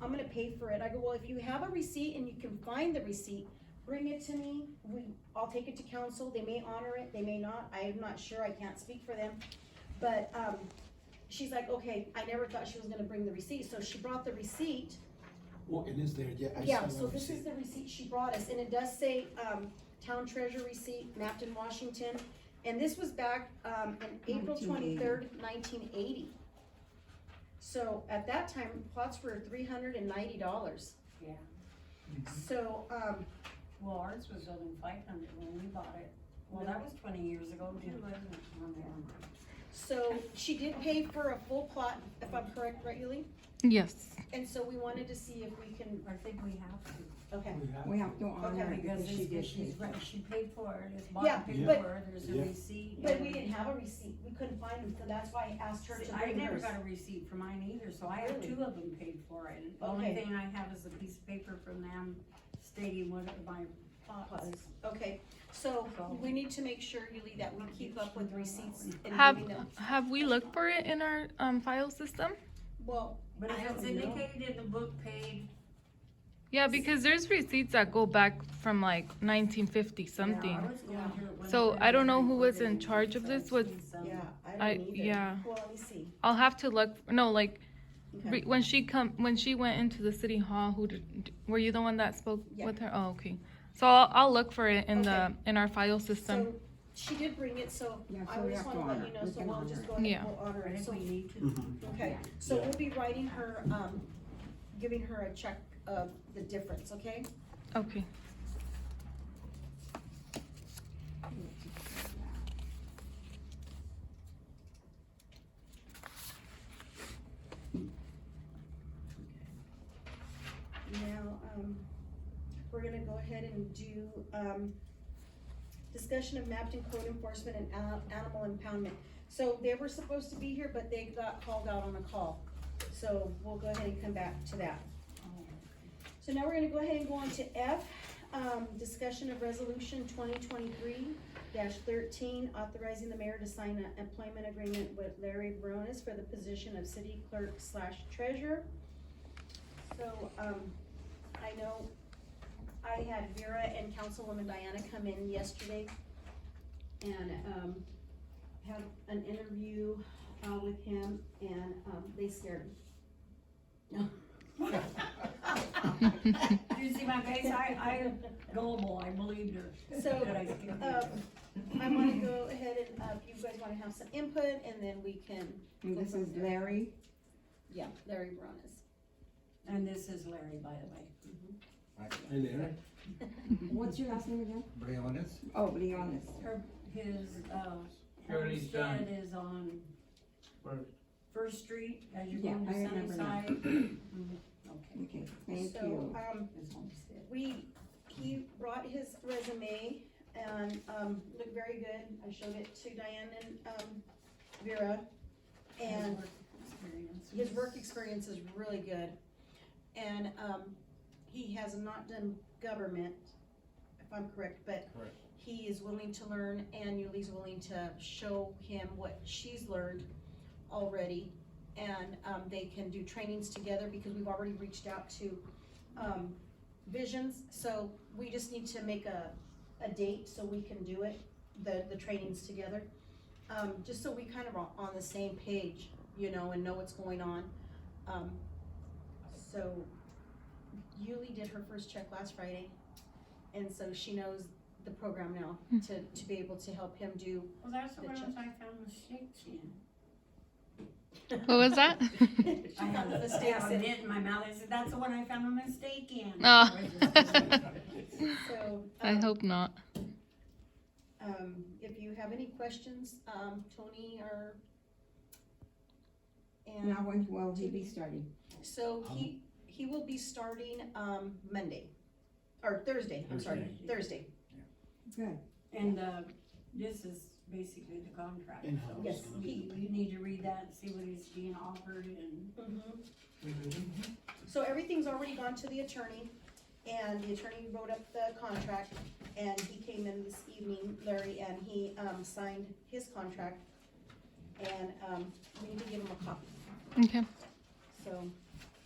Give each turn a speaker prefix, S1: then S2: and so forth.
S1: I'm gonna pay for it. I go, well, if you have a receipt and you can find the receipt, bring it to me. We, I'll take it to council. They may honor it, they may not. I am not sure. I can't speak for them. But, um, she's like, okay, I never thought she was gonna bring the receipt. So she brought the receipt.
S2: Well, it is there, yeah, I
S1: Yeah,
S2: see
S1: so
S2: what you
S1: this is
S2: said.
S1: the receipt she brought us, and it does say, um, town treasure receipt, Mapton, Washington. And this was back, um, in April
S3: 1980.
S1: twenty-third, nineteen eighty. So at that time, plots were three hundred and ninety dollars.
S3: Yeah,
S1: So, um,
S3: well, ours was only five hundred when we bought it. Well, that was twenty years ago too, wasn't it? Oh, never mind.
S1: so she did pay for a full plot, if I'm correct, right, Yuli?
S4: Yes.
S1: And so we wanted to see if we can,
S3: I think we have to,
S1: okay.
S2: We
S5: We
S2: have,
S5: have to honor it
S3: because
S5: because she
S3: it's,
S5: did pay
S3: she's
S5: for
S3: right,
S5: it.
S3: she paid for it, it's
S1: Yeah,
S3: bond paid
S2: but-
S3: for it, there's
S2: Yeah.
S3: a receipt.
S1: But we
S3: and-
S1: didn't have a receipt, we couldn't find them, so that's why I asked her to
S3: See, I
S1: bring
S3: never
S1: hers.
S3: got a receipt for mine either, so I have
S1: Really?
S3: two of them paid for it. And The only
S1: Okay.
S3: thing I have is a piece of paper from them stating what my plot is.
S1: Okay, so we need to make sure, Yuli, that we keep up with receipts and
S4: Have
S1: giving them.
S4: have we looked for it in our um, file system?
S1: Well,
S3: But
S1: I
S3: if it's
S1: don't know.
S3: indicated in the book paid,
S4: Yeah, because there's receipts that go back from like 1950
S3: yeah,
S4: something.
S3: I was going through it when
S4: So
S3: I
S4: I don't know
S3: read
S4: who
S3: it,
S4: was in
S3: and
S4: charge of
S3: so
S4: this,
S3: I
S4: was-
S3: seen some.
S1: yeah, I
S4: I
S1: don't either.
S4: yeah.
S1: Well, let me see.
S4: I'll have to look. No, like
S1: Okay.
S4: re, when she come when she went into the city hall. Who did, d- were you the one that spoke
S1: Yeah.
S4: with her? Oh, okay. So I'll, I'll look for it in the in our file system.
S1: So she did bring it, so
S5: Yeah,
S1: I
S5: so we
S1: just
S5: have to
S1: wanna
S5: honor
S1: let you
S5: it.
S1: know,
S5: We
S1: so
S5: can
S1: we'll
S5: honor
S1: just
S5: it.
S1: go ahead
S4: Yeah.
S1: and we'll honor
S3: Or
S1: it.
S3: if
S1: So,
S3: we need to.
S2: Mhm.
S1: okay,
S3: Yeah.
S1: so
S2: Yeah.
S1: we'll be writing her, um, giving her a check of the difference, okay?
S4: Okay.
S1: Now, um, we're gonna go ahead and do, um, discussion of Mapton code enforcement and a- animal impoundment. So they were supposed to be here, but they got called out on a call, so we'll go ahead and come back to that. So now we're gonna go ahead and go on to F, um, discussion of resolution twenty twenty-three thirteen, authorizing the mayor to sign an employment agreement with Larry Bronis for the position of city clerk slash treasurer. So, um, I know I had Vera and Councilwoman Diana come in yesterday and, um, had an interview, uh, with him and, um, they scared me.
S3: Oh. Did you see my face? I, I, gullible, I believed her.
S1: So,
S3: But I didn't.
S1: Um, I wanna go ahead and, uh, if you guys wanna have some input, and then we can,
S5: And this is Larry.
S1: yeah, Larry Bronis.
S3: And this is Larry, by the
S2: Hey there,
S5: What's your last name again?
S6: Briones.
S5: Oh, Leonis.
S3: way. Her, his, uh,
S6: Already done.
S3: homestead is on
S6: First.
S3: First Street, as you go
S5: Yeah,
S3: into
S5: I remember now.
S3: Sunnyside. Mhm. Okay,
S5: Okay, thank
S1: So,
S5: you.
S1: um,
S3: his homestead.
S1: we, he brought his resume and, um, looked very good, I showed it to Diane and, um, Vera. And
S3: His work experience.
S1: his work experience is really good. And, um, he has not done government, if I'm correct, but
S2: Correct.
S1: he is willing to learn and Yuli's willing to show him what she's learned already. And, um, they can do trainings together because we've already reached out to, um, Visions. So we just need to make a, a date so we can do it, the, the trainings together. Um, just so we kind of are on the same page you know, and know what's going on. Um, so Yuli did her first check last Friday, and so she knows the program now
S4: Hmm.
S1: to, to be able to help him do.
S3: Well, that's the
S1: The
S3: ones
S1: check.
S3: I found the shakes in.
S4: What was that?
S1: she
S3: I
S1: found
S3: had
S1: the
S3: a
S1: mistakes in.
S3: in my mouth, I said, that's the one I found a mistake in.
S4: Oh.
S1: So
S4: I
S1: um,
S4: hope not.
S1: um, if you have any questions, um, Tony or and
S4: Hmm.
S5: Now, when will he be starting?
S1: so he he will be starting um, Monday or Thursday. I'm sorry, Thursday.
S5: Good.
S3: And, uh, this is basically the contract.
S2: In-house.
S3: so
S1: Yes.
S3: You, you need to read that, and see what is being offered and.
S1: Mm-hmm.
S2: Mhm.
S1: So everything's already gone to the attorney, and the attorney wrote up the contract, and he came in this evening, Larry, and he, um, signed his contract. And, um, we need to give him a copy,
S4: Okay.
S1: so,